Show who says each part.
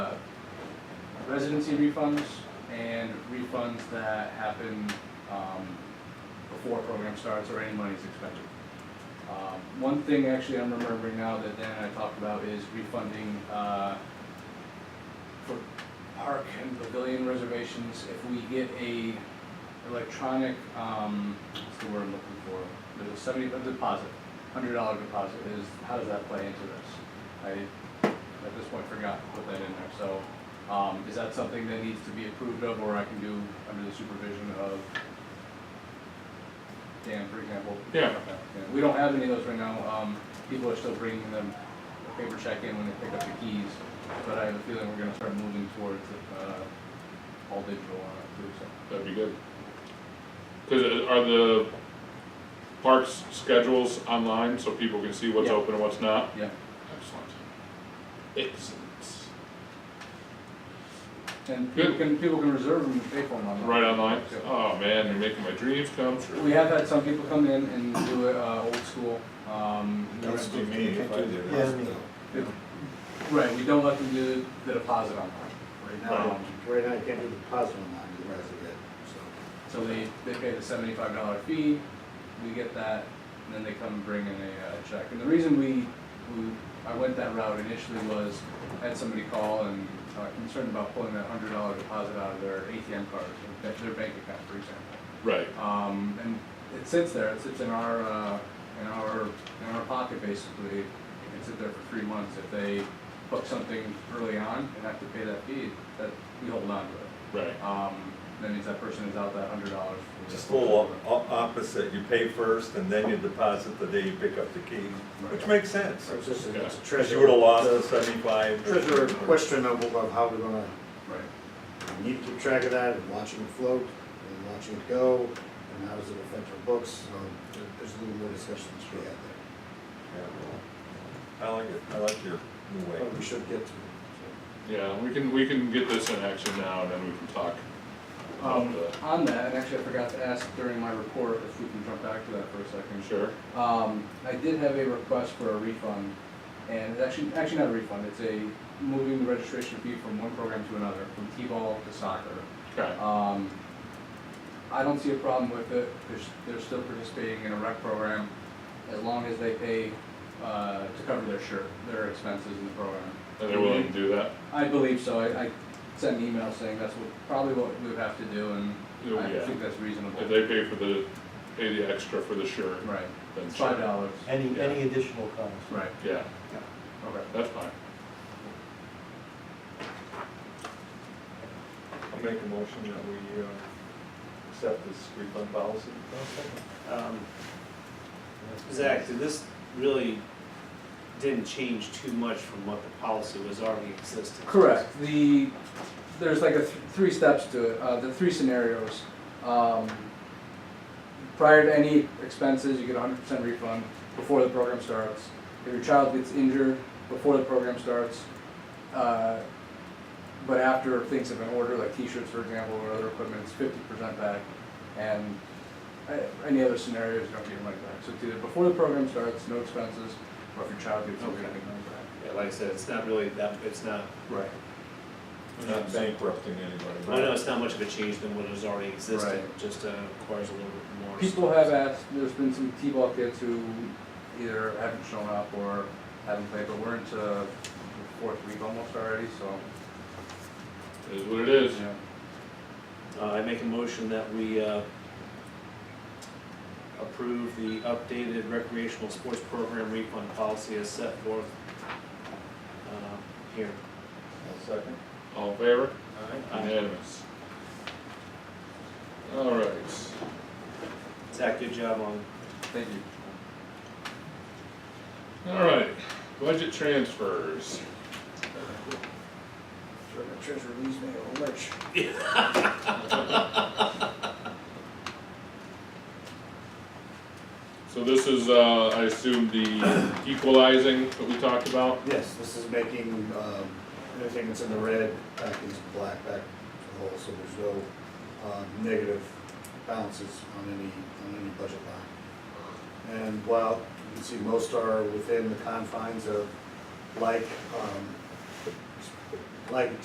Speaker 1: residency refunds and refunds that happen, um, before a program starts or any money is expended. Um, One thing actually I'm remembering now that Dan and I talked about is refunding, uh, for park and pavilion reservations, if we get a electronic, um, what's the word I'm looking for? There's a seventy, a deposit, hundred dollar deposit is, how does that play into this? I, at this point, forgot to put that in there, so, um, is that something that needs to be approved of, or I can do under the supervision of Dan, for example?
Speaker 2: Yeah.
Speaker 1: Okay, We don't have any of those right now, um, people are still bringing them a paper check in when they pick up the keys, but I have a feeling we're gonna start moving towards, uh, all digital on it too, so.
Speaker 2: That'd be good. Cause uh, are the parks schedules online so people can see what's
Speaker 1: Yeah.
Speaker 2: open and what's not?
Speaker 1: Yeah,
Speaker 2: Excellent. Excellent.
Speaker 1: and people
Speaker 2: Good.
Speaker 1: can, people can reserve them and pay for them online.
Speaker 2: Right online?
Speaker 1: Yeah.
Speaker 2: Oh man, you're making my dreams come true.
Speaker 1: We have had some people come in and do it, uh, old school, um. we
Speaker 3: That's
Speaker 1: don't-
Speaker 3: too many if I did it.
Speaker 4: Yeah.
Speaker 1: Right, we don't let them do the deposit online,
Speaker 4: Right now, right now, you can't do the deposit online, you guys are good, so.
Speaker 1: so they, they pay the seventy-five dollar fee, we get that, and then they come and bring in a, uh check. And the reason we, we, I went that route initially was, I had somebody call and, uh, concerned about pulling that hundred dollar deposit out of their ATM card, their their bank account, for example.
Speaker 2: Right,
Speaker 1: Um, and it sits there, it sits in our, uh, in our, in our pocket basically, it can sit there for three months. If they book something early on and have to pay that fee, that, we hold on to it.
Speaker 2: right.
Speaker 1: Um, that means that person is out that hundred dollars.
Speaker 3: Just a little op- op- opposite, you pay first and then you deposit the day you pick up the keys, which makes sense.
Speaker 4: So it's just a it's a
Speaker 3: Cause
Speaker 4: treasure.
Speaker 3: you would've lost the seventy-five. or-
Speaker 4: Treasure questionable of how we're gonna,
Speaker 1: Right,
Speaker 4: we need to keep track of that, and watching it float, and watching it go, and how does it affect our books, so there- there's a little more discussion to be had there.
Speaker 3: I like it, I like your new way.
Speaker 4: But we should get to it,
Speaker 2: Yeah, we can, we can get this in action now and then we can talk.
Speaker 1: um,
Speaker 2: about
Speaker 1: on that, and actually I forgot to ask during my report, if we can jump back to that for a
Speaker 2: the-
Speaker 1: second.
Speaker 2: Sure,
Speaker 1: Um, I did have a request for a refund, and it's actually, actually not a refund, it's a moving the registration fee from one program to another, from T-ball to soccer.
Speaker 2: okay,
Speaker 1: Um, I don't see a problem with it, they're, s- they're still participating in a rec program, as long as they pay, uh, to cover their shirt, their expenses in the program.
Speaker 2: and they're willing to do that?
Speaker 1: I believe so, I, I sent an email saying that's what, probably what we would have to do, and
Speaker 2: Oh,
Speaker 1: I
Speaker 2: yeah.
Speaker 1: think that's reasonable.
Speaker 2: If they pay for the, pay the extra for the shirt,
Speaker 1: Right,
Speaker 2: then
Speaker 1: it's
Speaker 2: sure.
Speaker 1: five dollars,
Speaker 5: Any,
Speaker 2: Yeah.
Speaker 5: any additional cost?
Speaker 1: right,
Speaker 2: Yeah,
Speaker 1: okay.
Speaker 2: that's fine.
Speaker 3: I'll make a motion that we, uh, accept this refund policy.
Speaker 6: Um, Zach, so this really didn't change too much from what the policy was already existing.
Speaker 1: Correct. The, there's like a, th- three steps to it, uh, the three scenarios. Um, prior to any expenses, you get a hundred percent refund before the program starts. If your child gets injured before the program starts, uh, but after things have been ordered, like t-shirts, for example, or other equipment, it's fifty percent back. And uh, any other scenarios, you don't get your money back. So it's either before the program starts, no expenses, or if your child gets injured, you get your money back.
Speaker 6: Yeah, like I said, it's not really that, it's not,
Speaker 1: Right.
Speaker 3: We're not bankrupting anybody.
Speaker 6: I know it's not much of a change than what is already existing,
Speaker 1: Right.
Speaker 6: just uh, requires a little bit more.
Speaker 1: People have asked, there's been some T-ball kids who either haven't shown up or haven't played, but we're into the fourth week almost already, so.
Speaker 2: It is what it is.
Speaker 6: Uh, I make a motion that we, uh, approve the updated recreational sports program refund policy as set forth, uh, here.
Speaker 3: I'll second.
Speaker 2: All in favor?
Speaker 3: Aye.
Speaker 2: Unanimous. All right.
Speaker 6: Zach, good job on
Speaker 1: Thank you.
Speaker 2: All right. Budget transfers.
Speaker 4: so. Treasure leaves me a lurch.
Speaker 2: So this is, uh, I assume the equalizing that we talked about?
Speaker 4: Yes, this is making, um, everything that's in the red back into black, back to the whole, so there's no, um, negative balances on any, on any budget line. And while you can see most are within the confines of like, um, like